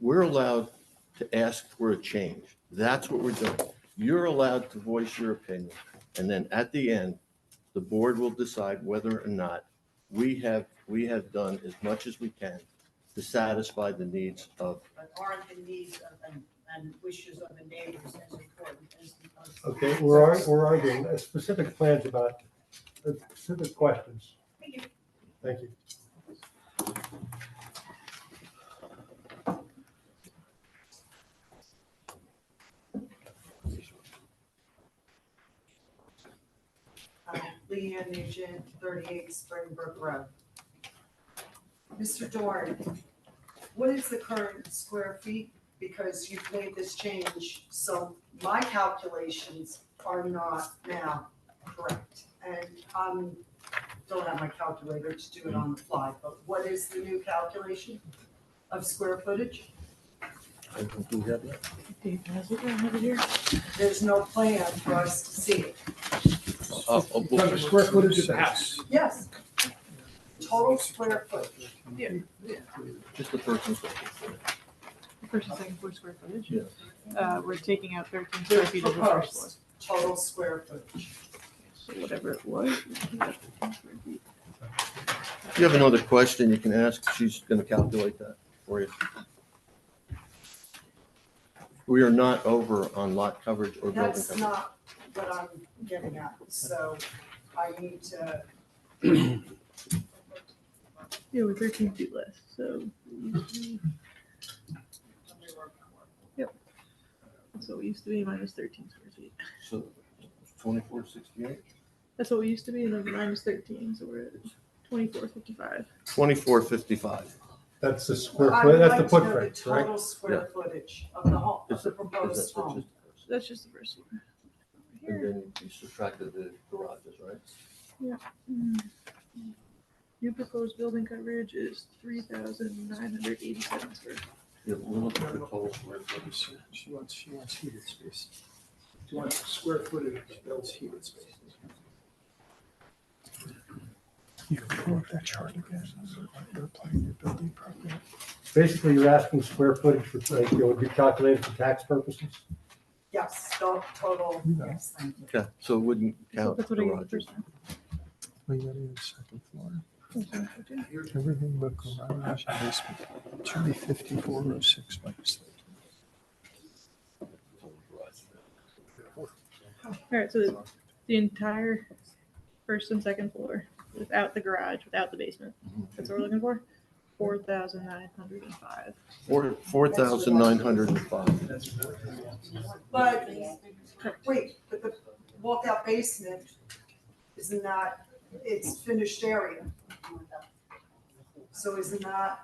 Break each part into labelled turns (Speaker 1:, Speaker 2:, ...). Speaker 1: We're allowed to ask for a change. That's what we're doing. You're allowed to voice your opinion. And then at the end, the board will decide whether or not we have, we have done as much as we can to satisfy the needs of,
Speaker 2: But aren't the needs of, and, and wishes of the neighbors as important as the? most-
Speaker 3: Okay, we're, ar- we're arguing uh, specific plans about uh, specific questions.
Speaker 2: Thank you.
Speaker 3: Thank you.
Speaker 2: Uh, Leanne Nugent, thirty-eight Springbrook Road. Mr. Dorn, what is the current square feet? Because you've made this change, so my calculations are not now correct. And I don't have my calculator to do it on the fly, but what is the new calculation of square footage?
Speaker 1: I think we have that.
Speaker 4: Dave, has it, I have it here.
Speaker 2: There's no plan for us to see it.
Speaker 1: Uh, uh,
Speaker 5: No, the square footage of the house.
Speaker 2: Yes. Total square footage.
Speaker 1: Just the first one.
Speaker 4: First and second floor square footage.
Speaker 1: Yes.
Speaker 4: Uh, we're taking out thirteen square feet of the first floor,
Speaker 2: total square footage.
Speaker 4: so whatever it was.
Speaker 1: If you have another question, you can ask. She's going to calculate that for you. We are not over on lot coverage or building
Speaker 2: That's
Speaker 1: coverage.
Speaker 2: not what I'm getting at, so I need to,
Speaker 4: Yeah, we're thirteen feet less, so that's what we used to be, minus thirteen square feet.
Speaker 1: So twenty-four sixty-eight?
Speaker 4: That's what we used to be, and then minus thirteen, so we're at twenty-four fifty-five.
Speaker 1: Twenty-four fifty-five.
Speaker 3: That's the square
Speaker 2: I
Speaker 3: foot,
Speaker 2: would
Speaker 3: that's the
Speaker 2: like to know the
Speaker 3: footprint, right?
Speaker 2: total square footage of the home, of
Speaker 1: Is
Speaker 2: the
Speaker 1: it- is
Speaker 2: proposed
Speaker 1: that what
Speaker 2: home.
Speaker 1: just-
Speaker 4: So that's just the first floor.
Speaker 1: And
Speaker 4: Here.
Speaker 1: then you subtracted the garages, right?
Speaker 4: Mm. New proposed building coverage is three thousand nine hundred eighty-seven square. feet.
Speaker 1: Yeah, but we're looking for total square footage.
Speaker 5: She wants, she wants heated space. She wants square footage of built heated space.
Speaker 6: You can pull up that chart again. You're applying your building program.
Speaker 3: Basically, you're asking square footage for, like, it would be calculated for tax purposes?
Speaker 2: Yes, to- total,
Speaker 6: You know.
Speaker 2: yes, thank you.
Speaker 1: Okay, so it wouldn't
Speaker 4: So
Speaker 1: count
Speaker 4: That's what I got the
Speaker 1: garages.
Speaker 4: first time.
Speaker 6: We got it in the second floor.
Speaker 4: Okay.
Speaker 6: Everything but garage and basement. Should be fifty-four oh six minus
Speaker 4: All right, so the, the entire first and second floor without the garage, without the basement. That's what we're looking for. Four thousand nine hundred and five.
Speaker 1: Four, four thousand nine hundred and five.
Speaker 5: That's what I want.
Speaker 2: But, wait, but the walkout basement is not, it's finished area. So is not,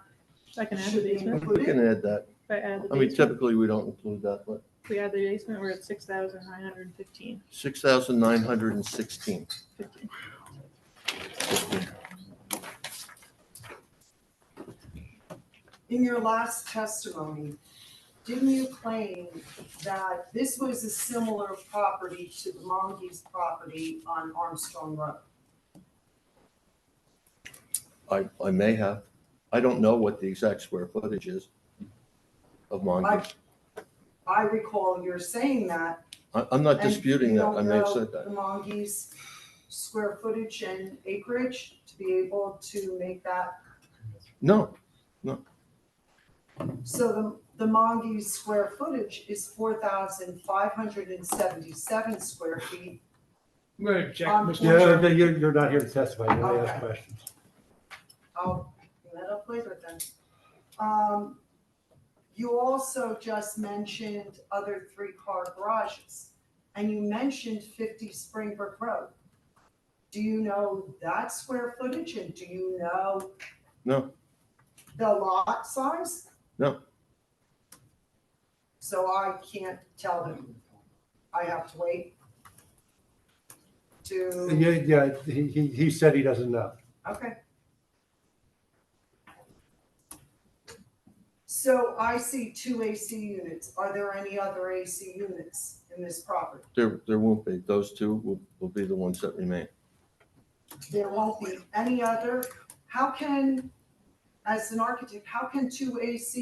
Speaker 4: I can add the
Speaker 2: Should be
Speaker 4: basement.
Speaker 1: We can add that.
Speaker 4: If I add the
Speaker 1: I mean,
Speaker 4: basement,
Speaker 1: typically, we don't include that, but
Speaker 4: if we add the basement, we're at six thousand nine hundred and fifteen.
Speaker 1: six thousand nine hundred and sixteen.
Speaker 4: Fifteen.
Speaker 2: In your last testimony, didn't you claim that this was a similar property to the Monge's property on Armstrong Road?
Speaker 1: I, I may have. I don't know what the exact square footage is of
Speaker 2: I,
Speaker 1: Mongoose.
Speaker 2: I recall you're saying that.
Speaker 1: I, I'm not
Speaker 2: and
Speaker 1: disputing
Speaker 2: you
Speaker 1: that.
Speaker 2: don't
Speaker 1: I may have
Speaker 2: know
Speaker 1: said that.
Speaker 2: The Monge's square footage and acreage to be able to make that,
Speaker 1: No,
Speaker 2: so the, the Monge's square footage is four thousand five hundred and seventy-seven square feet.
Speaker 5: I'm gonna object,
Speaker 2: Um,
Speaker 5: Mr.
Speaker 2: Yeah.
Speaker 3: You're, you're, you're not here to testify, you only ask
Speaker 2: Okay.
Speaker 3: questions.
Speaker 2: I'll bring Oh, that up later then. Um, you also just mentioned other three-car garages, and you mentioned fifty Springbrook Road. Do you know that square footage, and do you know
Speaker 1: no,
Speaker 2: the lot size?
Speaker 1: No.
Speaker 2: So I can't tell them. I have to wait to,
Speaker 3: Yeah, yeah, he, he, he said he doesn't know.
Speaker 2: okay. So I see two AC units. Are there any other AC units in this property?
Speaker 1: there, there won't be. Those two will, will be the ones that remain.
Speaker 2: There won't be any other. How can, as an architect, how can two AC